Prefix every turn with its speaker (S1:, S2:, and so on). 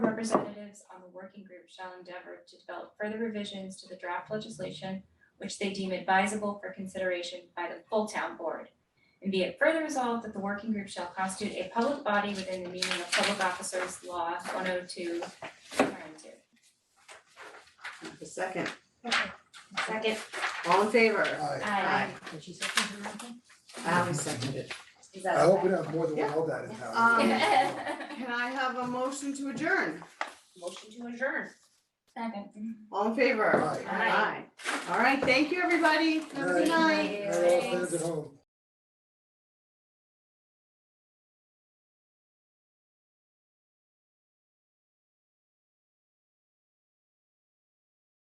S1: representatives on the working group shall endeavor to develop further revisions to the draft legislation which they deem advisable for consideration by the full town board. And be it further resolved that the working group shall constitute a public body within the meaning of Public Officers Law one oh two oh
S2: A second,
S1: Second.
S2: all in favor?
S3: Aye.
S1: Aye.
S4: Did she second her own thing?
S2: Ally seconded it.
S1: Is
S3: I hope we don't have more than one LDAT in town.
S2: Um, Can I have a motion to adjourn?
S5: Motion to adjourn.
S1: Second.
S2: All in favor?
S3: Aye.
S2: Aye. All right, thank you, everybody. Have a
S3: Aye.
S2: good night.
S3: All our fans at home.